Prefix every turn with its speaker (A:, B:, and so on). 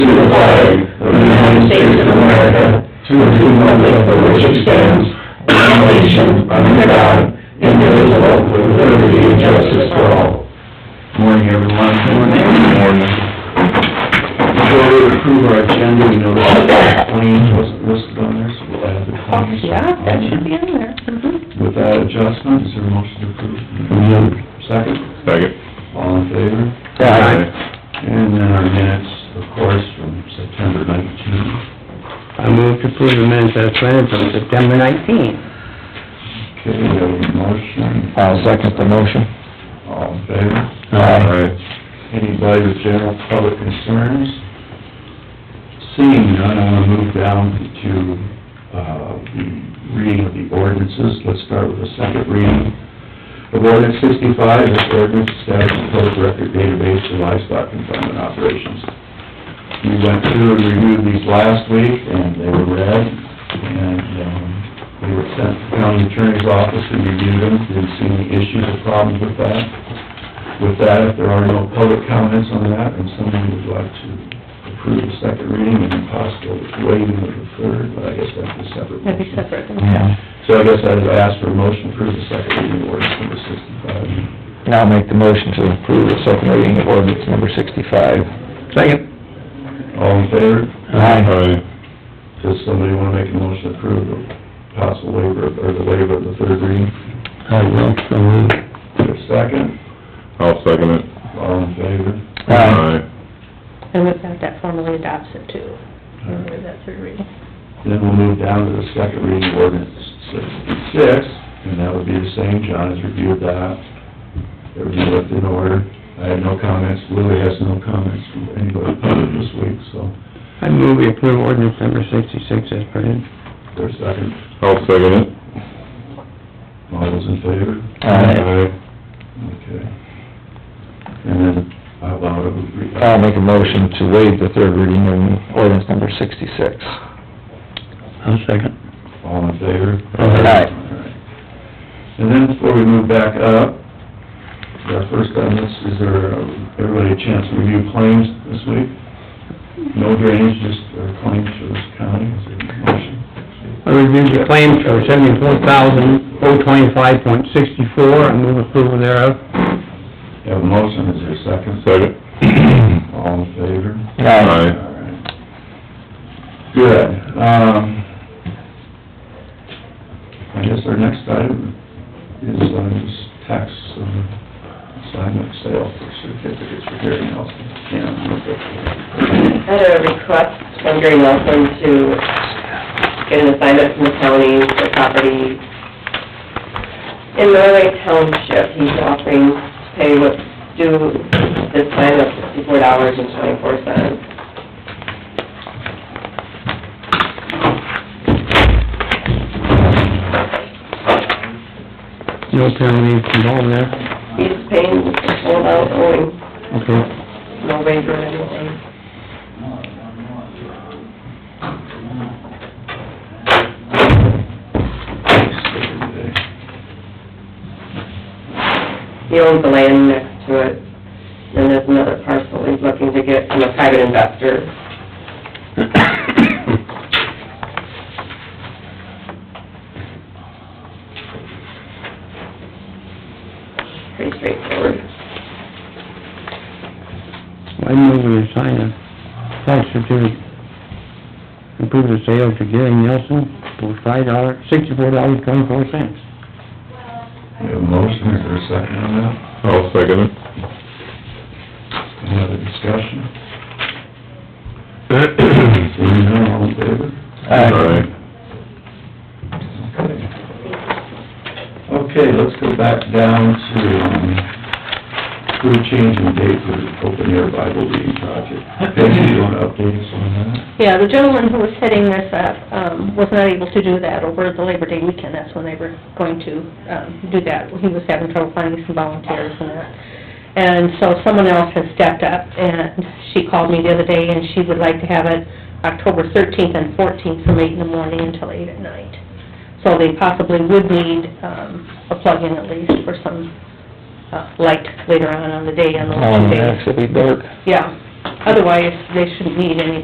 A: to the flag of the United States of America, to the republic for which it stands, one nation, under God, indivisible, with liberty and justice for all.
B: Morning, everyone. Morning. Morning. Before we approve our agenda, we noticed that the claims wasn't listed on there, so we'll add the claims.
C: Yeah, that should be in there. Mhm.
B: With that adjustment, is there a motion to approve?
A: Move.
B: Second,
D: Second.
B: all in favor?
D: Aye.
B: And then our minutes, of course, from September nineteenth.
A: I move to approve the minutes as planned from September nineteenth.
B: Okay, we have a motion.
A: the motion.
B: All in favor?
A: Aye.
B: Anybody with general public concerns? Seeing none, I want to move down to, uh, the reading of the ordinances. Let's start with the second reading. Of ordinance sixty-five, this ordinance establishes public record database for livestock confinement operations. We went through and reviewed these last week, and they were read, and, um, they were sent to the county attorney's office and reviewed them, didn't see any issues or problems with that. With that, if there are no public comments on that, and someone would like to approve the second reading and possibly waiving of the third, but I guess that's a separate
C: That'd be
B: motion.
C: separate.
A: Yeah,
B: So I guess I would ask for a motion to approve the second reading of ordinance number sixty-five.
A: and I'll make the motion to approve the second reading of ordinance number sixty-five. Second.
B: All in favor?
D: Aye.
B: Does somebody want to make a motion to approve the possible waiver, of- or the waiver of the third reading?
A: I will, so move.
B: Is there a second?
D: I'll second it.
B: All in favor?
C: And we've got that formally adopts it too,
B: All right.
C: with that third reading.
B: Then we'll move down to the second reading of ordinance sixty-six, and that would be the same, John has reviewed that. Everything looked in order, I had no comments, Lily has no comments from anybody public this week, so,
A: I move we approve ordinance number sixty-six as printed.
B: is there a second?
D: I'll second it.
B: All those in favor? Okay. And then, I allow it,
E: I'll make a motion to waive the third reading of ordinance number sixty-six.
A: I'll second.
B: all in favor?
E: Aye.
B: Alright. And then before we move back up, our first on this, is there, uh, everybody a chance to review claims this week? No drainage, just uh, claims for this county, is there a motion?
A: I reviewed the claims for seventy-four thousand, oh twenty-five point sixty-four, I move approval thereof.
B: You have a motion, is there a second?
D: Second.
B: All in favor?
E: Aye.
B: Alright. Good, um, I guess our next item is on this tax um, assignment sale for certificates for Gary Nelson. Yeah.
F: had a request from Gary Nelson to get an assignment from the county for property in Norway Township. He's offering to pay what's due this time of sixty-four dollars and twenty-four cents.
A: No penalties involved there,
F: He's paying the full amount owing,
A: okay.
F: no waiver or anything. He owns the land next to it, and there's another parcel he's looking to get from a private investor. Pretty straightforward.
A: I move we assign a tax certificate, approve the sale to Gary Nelson for five dollars, sixty-four dollars, twenty-four cents.
B: We have a motion, is there a second on that?
D: I'll second it.
B: Any other discussion? Seeing none, all in favor? Okay. Okay, let's go back down to, um, crew change in date for the open air Bible reading project. Peggy, you wanna update us on that?
C: Yeah, the gentleman who was setting this up, um, was not able to do that over the Labor Day weekend, that's when they were going to, um, do that. He was having trouble finding some volunteers and that. And so someone else has stepped up, and she called me the other day, and she would like to have it October thirteenth and fourteenth from eight in the morning until eight at night. So they possibly would need, um, a plug-in at least for some, uh, light later on on the day on those
E: Um,
C: two days.
E: next it'll be dark.
C: Yeah, otherwise, they shouldn't need any